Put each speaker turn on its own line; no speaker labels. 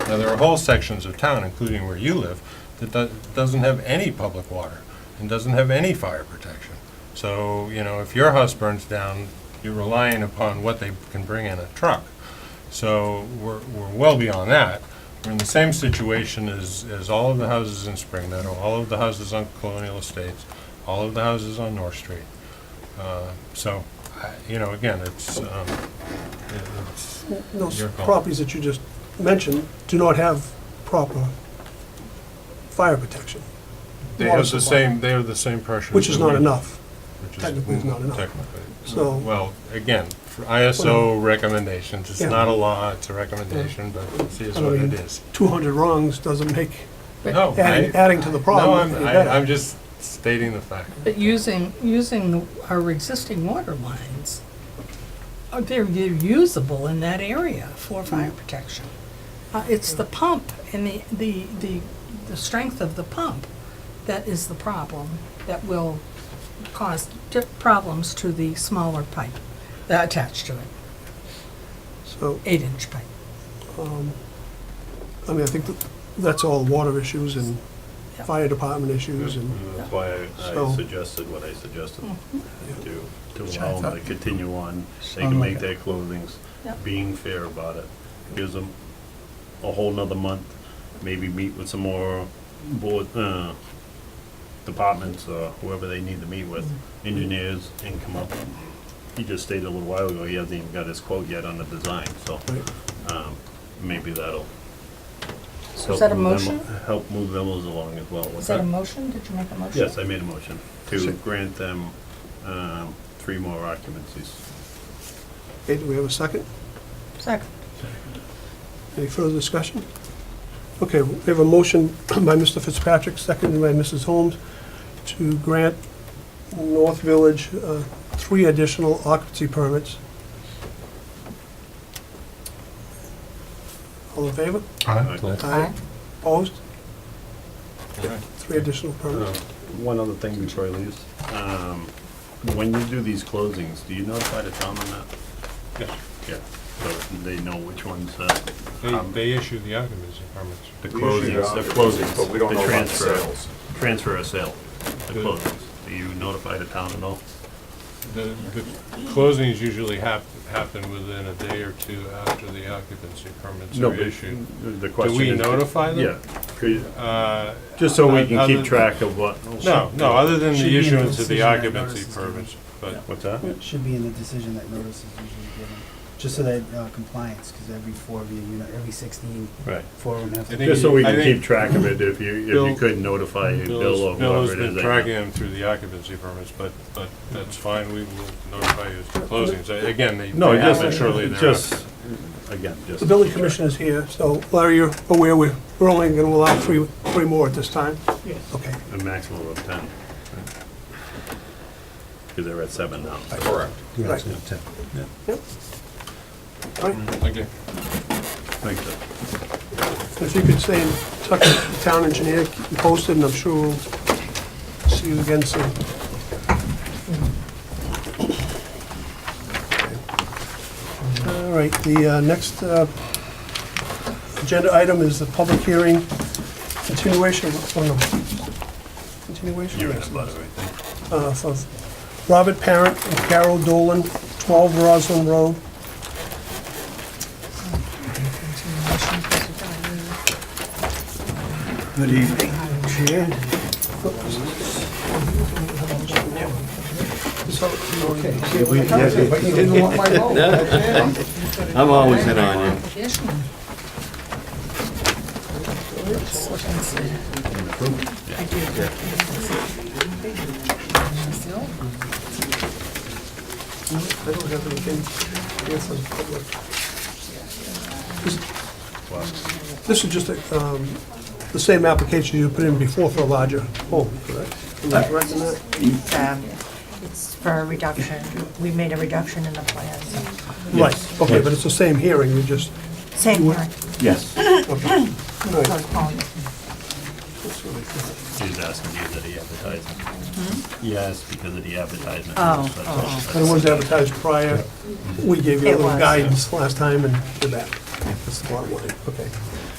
Now, there are whole sections of town, including where you live, that do- doesn't have any public water and doesn't have any fire protection. So, you know, if your house burns down, you're relying upon what they can bring in a truck. So we're, we're well beyond that. We're in the same situation as, as all of the houses in Spring Meadow, all of the houses on Colonial Estates, all of the houses on North Street. Uh, So, I- you know, again, it's, um, it- it's,
Those
Your call.
properties that you just mentioned do not have proper fire protection,
they
Water
have the
supply.
same, they have the same pressures.
which is
that we-
not enough.
which is
technically is not enough.
Technically.
So-
Well, again, for ISO recommendations, it's
Yeah.
not a law, it's a recommendation, but it is
I
what
mean,
it is.
200 wrongs doesn't make,
No,
adding
I,
adding to the
no,
problem
I'm,
any
I- I'm
better.
just stating the fact.
But using, using our existing water lines, uh, they're they're usable in that area for fire protection. Uh, It's the pump and the, the, the, the strength of the pump that is the problem that will cause di- problems to the smaller pipe that attached to it,
So, um,
eight-inch pipe.
I mean, I think that- that's all water issues and
Yeah.
fire department issues and,
That's why I-
So-
I suggested what I suggested, to, to
Sure, I
allow them to
thought-
continue on. They
Sound
can
like
make
it.
their clothings,
Yep.
being fair about it. Gives them a whole nother month, maybe meet with some more board, uh, departments, or whoever they need to meet with, engineers, and come up. He just stated a little while ago, he hasn't even got his quote yet on the design, so,
right,
um, maybe that'll.
So is
help
that a
move them-
motion?
Help move them along as well.
Is that a motion? Did you make a motion?
Yes, I made a motion to
Sure.
grant them um, three more occupancies.
Okay, do we have a second?
Second.
Any further discussion? Okay, we have a motion by Mr. Fitzpatrick, seconded by Mrs. Holmes, to grant North Village uh, three additional occupancy permits. All in favor?
Aye.
Opposed? Three additional
Uh,
permits.
One other thing before I leave. Um, When you do these closings, do you notify the town on that?
Yeah.
Yeah, so they know which ones uh,
They, they issue the occupancy permits.
the
We usually
closings, the
don't,
closings.
But we don't know about the
transfer-
sales.
Transfer of sale, the
Good.
closings. Do you notify the town at all?
The, the closings usually hap, happen within a day or two after the occupancy permits are
but
issued.
The
Do
question
we
is-
notify
Yeah,
them?
could-
Yeah.
just so we can
Other than-
keep track of what.
No, no, other than
Should
the
be in the
issuance of the
decision that
occupancy
notice is given.
permits, but
What's that?
It should be in the decision that notice is usually given, just so that uh, compliance, because every four of you, you know, every sixteen,
Right.
four of them have
I
to.
think-
Just so we can
think-
keep track of it, if you, if
Bill-
you could notify Bill or
Bill's, Bill has
whoever it
been
is.
tracking
I-
them through the occupancy permits, but, but that's fine, we will notify you as to closings. Uh, Again, they
No,
they happen
just,
shortly
just,
thereafter.
again, just.
The building commissioner's here, so Larry, you're aware we're we're only going to allow three, three more at this time? Yes. Okay.
A maximum of ten. Because they're at seven now.
Correct.
Right. Yep. All right,
Okay.
Thanks. Bill.
If you could stay in touch with the town engineer, keep me posted, and I'm sure we'll see you again soon. All right, the uh, next uh, agenda item is the public hearing continuation, oh no, continuation?
You're in
Yes.
a butter, right?
uh, for Robert Parent and Carol Dolan, 12 Roslyn Road.
Continuation, because
Good evening.
Chair. Okay.
But you didn't want my vote.
I'm always in
we
on
got
you.
an application. Let's look and see. I did. Still?
I don't have anything here for the public. This- This is just a, um, the same application you put in before for a larger home, correct? Am I correct in that?
um, It's for a reduction. We made a reduction in the plan, so,
Right, okay, but it's the same hearing, you just,
same hearing,
Yes.
all right,
postponed.
He's asking you that he advertised. Yes, because of the advertisement.
Mm-hmm. Oh,
That's all.
oh.
but it was advertised prior. We gave you a
It
little
was.
guidance last time and did that. That's the bottom line, okay.